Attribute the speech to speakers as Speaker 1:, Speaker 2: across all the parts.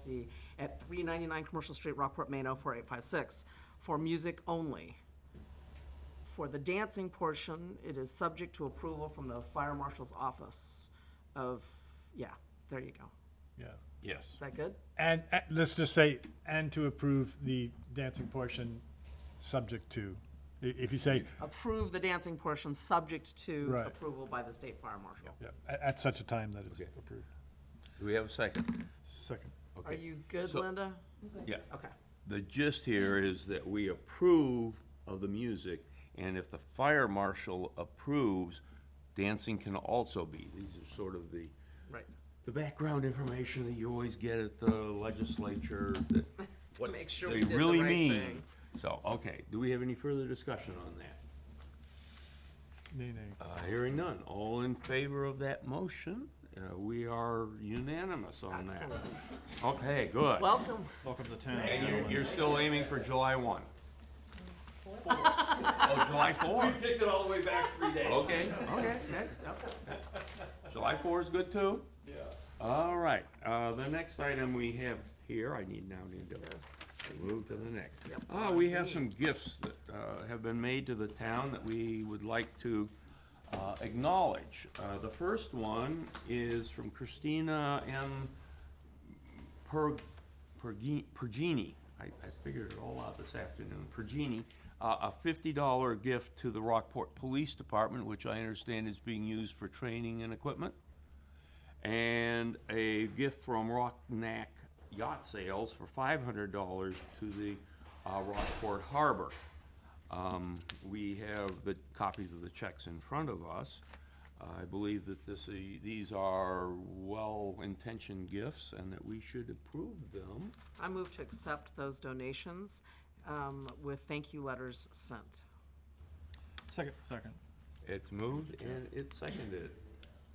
Speaker 1: see, at 399 Commercial Street, Rockport, Maine, 04856, for music only. For the dancing portion, it is subject to approval from the fire marshal's office of, yeah, there you go.
Speaker 2: Yeah.
Speaker 3: Yes.
Speaker 1: Is that good?
Speaker 2: And, and let's just say, and to approve the dancing portion, subject to, I- if you say,
Speaker 1: Approve the dancing portion, subject to
Speaker 2: Right.
Speaker 1: approval by the state fire marshal.
Speaker 2: yeah, at, at such a time that it's
Speaker 3: Okay.
Speaker 2: approved.
Speaker 3: Do we have a second?
Speaker 2: Second.
Speaker 1: Are
Speaker 3: Okay.
Speaker 1: you good,
Speaker 3: So-
Speaker 1: Linda?
Speaker 3: Yeah.
Speaker 1: Okay.
Speaker 3: The gist here is that we approve of the music, and if the fire marshal approves, dancing can also be. These are sort of the,
Speaker 1: Right.
Speaker 3: the background information that you always get at the legislature that. what
Speaker 1: make sure
Speaker 3: they
Speaker 1: we did the
Speaker 3: really
Speaker 1: right
Speaker 3: mean.
Speaker 1: thing.
Speaker 3: So, okay, do we have any further discussion on that?
Speaker 2: Nay, nay.
Speaker 3: Uh, hearing none. All in favor of that motion? Uh, we are unanimous on that.
Speaker 1: Excellent.
Speaker 3: Okay, good.
Speaker 1: Welcome.
Speaker 2: Welcome to town.
Speaker 3: And you're, you're still aiming for July one? Oh, July four?
Speaker 4: Picked it all the way back three days.
Speaker 3: Okay, okay, that, that- July four is good too? Yeah. All right, uh, the next item we have here, I need now need to
Speaker 1: Yes.
Speaker 3: move to the next.
Speaker 1: Yep.
Speaker 3: Uh, we have some gifts that, uh, have been made to the town that we would like to, uh, acknowledge. Uh, the first one is from Christina M. Per, Pergi- Pergini, I, I figured it all out this afternoon, Pergini, uh, a fifty dollar gift to the Rockport Police Department, which I understand is being used for training and equipment. And a gift from Rocknack Yacht Sales for five hundred dollars to the, uh, Rockport Harbor. Um, we have the copies of the checks in front of us. I believe that this, uh, these are well-intentioned gifts and that we should approve them.
Speaker 1: I move to accept those donations um, with thank you letters sent.
Speaker 2: Second. Second.
Speaker 3: It's moved and it's seconded.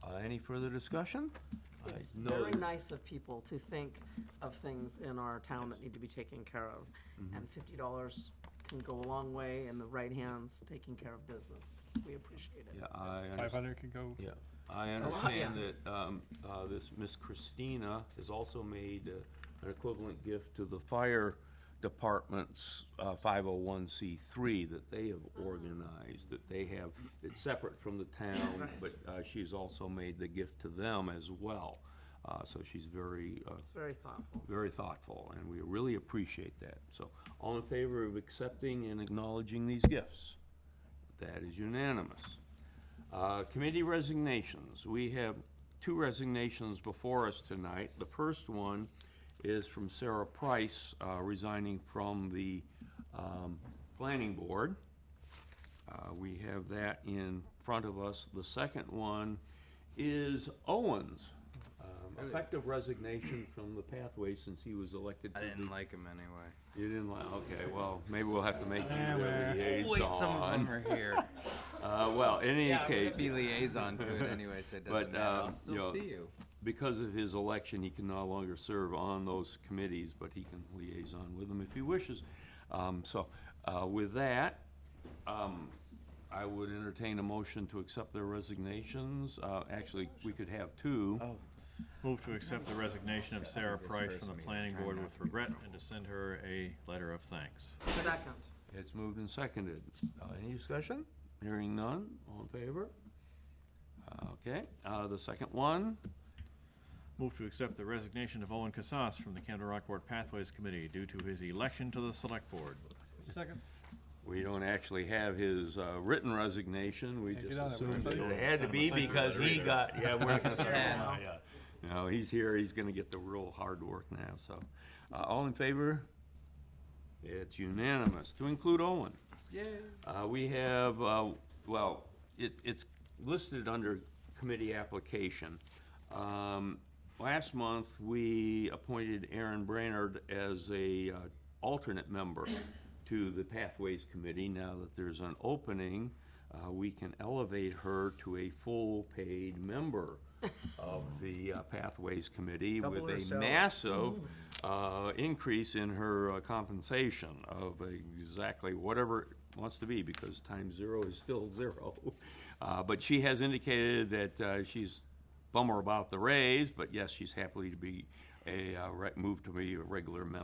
Speaker 3: Uh, any further discussion? I
Speaker 1: It's
Speaker 3: know
Speaker 1: very
Speaker 3: that-
Speaker 1: nice of people to think of things in our town that need to be taken care of. And fifty dollars can go a long way in the right hands, taking care of business. We appreciate it.
Speaker 3: Yeah, I
Speaker 2: Five
Speaker 3: understand,
Speaker 2: hundred could go.
Speaker 3: yeah, I understand that, um, uh, this Miss Christina has also made uh, an equivalent gift to the fire department's, uh, five oh one C three that they have organized, that they have, it's separate from the town, but, uh, she's also made the gift to them as well. Uh, so she's very, uh,
Speaker 1: It's very thoughtful.
Speaker 3: very thoughtful, and we really appreciate that. So, all in favor of accepting and acknowledging these gifts? That is unanimous. Uh, Committee resignations. We have two resignations before us tonight. The first one is from Sarah Price uh, resigning from the um, Planning Board. Uh, We have that in front of us. The second one is Owens, um, effective resignation from the Pathway since he was elected.
Speaker 4: I
Speaker 3: to
Speaker 4: didn't
Speaker 3: the-
Speaker 4: like him anyway.
Speaker 3: You didn't like, okay, well, maybe we'll have to make you
Speaker 2: Eh,
Speaker 3: the
Speaker 2: well.
Speaker 3: liaison.
Speaker 4: are here.
Speaker 3: Uh, Well, in any case,
Speaker 4: Be liaison to it anyway, so it
Speaker 3: But,
Speaker 4: doesn't matter. I'll
Speaker 3: um, you
Speaker 4: still
Speaker 3: know,
Speaker 4: see you.
Speaker 3: because of his election, he can no longer serve on those committees, but he can liaison with them if he wishes. Um, So uh, with that, um, I would entertain a motion to accept their resignations. Uh, Actually, we could have two.
Speaker 5: Move to accept the resignation of Sarah
Speaker 4: this
Speaker 5: Price
Speaker 4: first
Speaker 5: from the
Speaker 4: meeting.
Speaker 5: planning
Speaker 4: Try
Speaker 5: board
Speaker 4: not
Speaker 5: with regret and to send her a letter of thanks.
Speaker 1: Second.
Speaker 3: It's moved and seconded. Uh, Any discussion? Hearing none, all in favor? Uh, Okay, Uh, the second one,
Speaker 5: Move to accept the resignation of Owen Casas from the Canada Rockport Pathways Committee due to his election to the select board.
Speaker 2: Second.
Speaker 3: we don't actually have his uh, written resignation, we
Speaker 2: Can't
Speaker 3: just
Speaker 2: get on that
Speaker 3: assumed
Speaker 2: website.
Speaker 3: it had to be because he got, yeah, we're not gonna start now,
Speaker 2: uh,
Speaker 3: yeah. No, he's here, he's gonna get the real hard work now, so. Uh, All in favor? It's unanimous, to include Owen. Uh, we have, uh, well, it, it's listed under committee application. Um, last month, we appointed Aaron Brainerd as a, uh, alternate member to the Pathways Committee. Now that there's an opening, uh, we can elevate her to a full-paid member of the uh, Pathways Committee with a massive uh, increase in her uh, compensation of exactly whatever it wants to be, because times zero is still zero. Uh, But she has indicated that uh, she's bummer about the raise, but yes, she's happily to be a, uh, re- move to be a regular member.